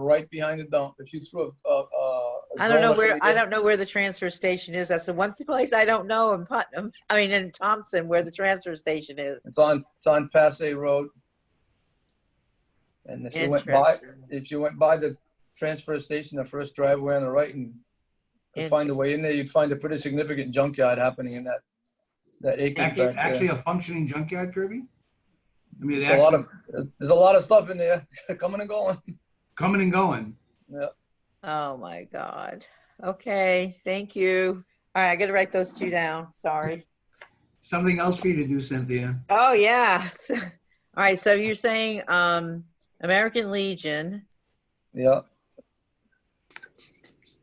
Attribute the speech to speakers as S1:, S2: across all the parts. S1: right behind the dump. If you threw a, a, a
S2: I don't know
S1: dollar,
S2: where,
S1: somebody
S2: I
S1: get-
S2: don't know where the transfer station is. That's the one place I don't know in Putnam, I mean, in Thompson, where the transfer station is.
S1: It's on, it's on Passay Road. And if you went by,
S2: Interesting.
S1: if you went by the transfer station, the first driveway on the right and could find a way in there, you'd find a pretty significant junkyard happening in that, that acreage
S3: Actually,
S1: back
S3: actually
S1: there.
S3: a functioning junkyard, Kirby? I mean, they
S1: There's a lot
S3: actually
S1: of, there's a lot of stuff in there, coming and going.
S3: coming and going.
S2: Oh, my God. Okay, thank you. All right, I gotta write those two down. Sorry.
S3: Something else for you to do, Cynthia.
S2: Oh, yeah. All right, so you're saying, um, American Legion,
S1: Yeah.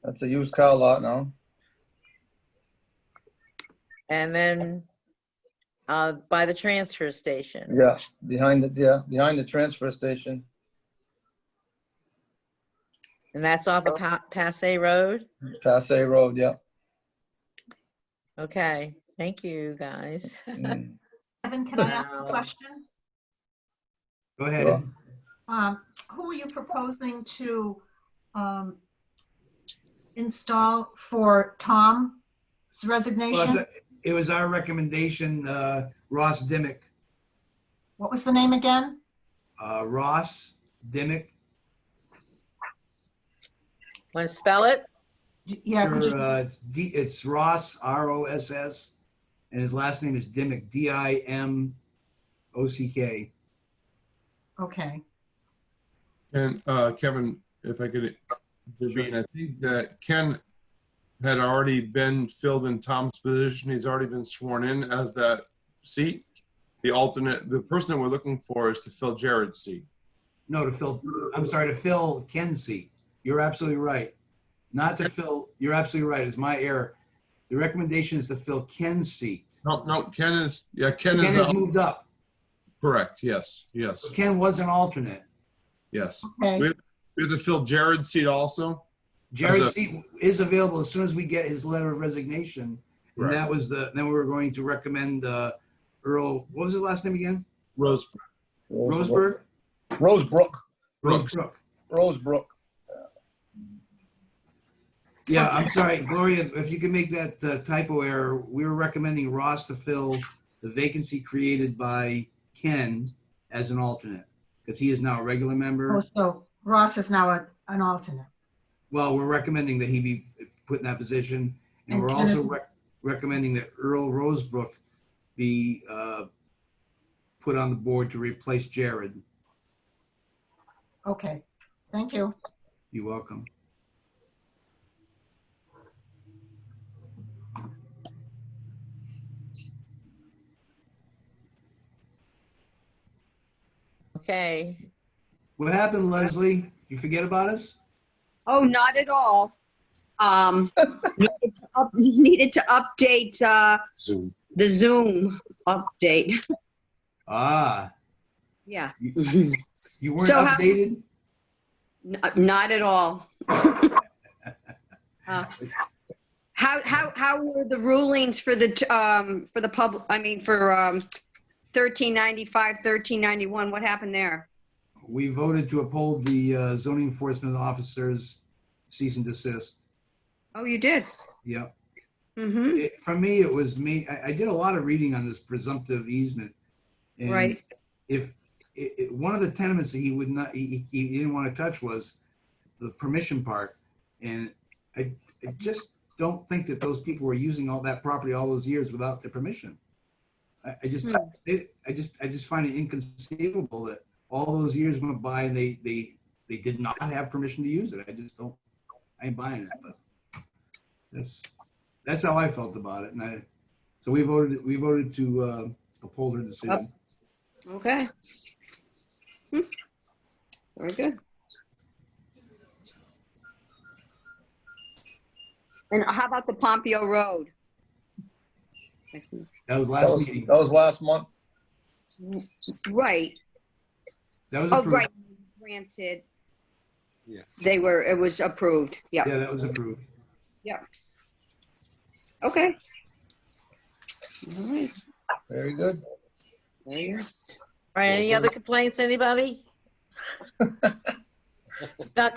S1: That's a used car lot now.
S2: and then, uh, by the transfer station.
S1: Yeah, behind the, yeah, behind the transfer station.
S2: And that's off of Pa- Passay Road?
S1: Passay Road, yeah.
S2: Okay, thank you, guys.
S1: Mm.
S4: Evan, can I ask
S2: Wow.
S4: a question?
S3: Go ahead.
S1: Sure.
S4: Um, Who are you proposing to um, install for Tom's
S3: Well,
S4: resignation?
S3: that's- It was our recommendation, uh, Ross Dimick,
S4: What was the name again?
S3: uh, Ross Dimick
S2: Want to spell it?
S4: D- Yeah, could
S3: Sure,
S4: you-
S3: uh, it's D, it's Ross, R O S S, and his last name is Dimick, D I M O C K.
S4: okay.
S5: And uh, Kevin, if I could intervene, I think that Ken had already been filled in Tom's position. He's already been sworn in as that seat. The alternate, the person that we're looking for is to fill Jared's seat.
S3: No, to fill, I'm sorry, to fill Ken's seat. You're absolutely right. Not to fill, you're absolutely right. It's my error. The recommendation is to fill Ken's seat.
S5: No, no, Ken is, yeah, Ken
S3: Ken
S5: is,
S3: has
S5: the-
S3: moved up.
S5: correct, yes, yes,
S3: Ken was an alternate.
S5: yes.
S4: Okay,
S5: We have to fill Jared's seat also?
S3: Jerry's
S5: As a-
S3: seat is available as soon as we get his letter of resignation. And
S5: Right.
S3: that was the, then we were going to recommend uh, Earl, what was his last name again?
S5: Rose,
S3: Roseburg?
S1: Rosebrook,
S5: Brooks.
S3: Rosebrook.
S1: Rosebrook.
S3: Yeah, I'm sorry, Gloria, if you can make that uh, typo error, we were recommending Ross to fill the vacancy created by Ken as an alternate, because he is now a regular
S4: Oh,
S3: member.
S4: so Ross is now a- an alternate.
S3: Well, we're recommending that he be put in that position, and we're
S4: And
S3: also
S4: Ken-
S3: rec- recommending that Earl Rosebrook be uh, put on the board to replace Jared.
S4: Okay, thank you.
S3: You're welcome.
S2: Okay.
S3: What happened, Leslie? You forget about us?
S6: Oh, not at all. Um, needed to up- Needed to update uh,
S7: Zoom.
S6: the Zoom update.
S3: Ah,
S6: Yeah,
S3: you weren't
S6: So how-
S3: updated?
S6: n- not at all. Uh, How, how, how were the rulings for the, t- um, for the public, I mean, for um, 1395, 1391? What happened there?
S3: We voted to uphold the uh, zoning enforcement officer's cease and desist.
S6: Oh, you did?
S3: Yep.
S6: Mm-hmm,
S3: It- For me, it was me, I, I did a lot of reading on this presumptive easement. and
S6: right.
S3: If, it, it, one of the tenements that he would not, he, he he didn't want to touch was the permission part. And I, I just don't think that those people were using all that property all those years without their permission. I, I just,
S6: Hmm.
S3: it, I just, I just find it inconceivable that all those years went by and they, they, they did not have permission to use it. I just don't, I ain't buying it, but that's, that's how I felt about it. And I, so we voted, we voted to, uh, uphold her decision.
S6: Okay. Hmm. Very good. And how about the Pompeo Road?
S3: That was
S1: That
S3: last
S1: was, oh,
S3: meeting.
S1: that was last month.
S6: Right,
S3: That was
S6: oh,
S3: approved.
S6: right, granted.
S7: Yeah.
S6: They were, it was approved, yeah,
S3: Yeah, that was approved.
S6: okay. All right,
S1: Very good.
S6: there you go.
S2: All right, any other complaints, anybody? Not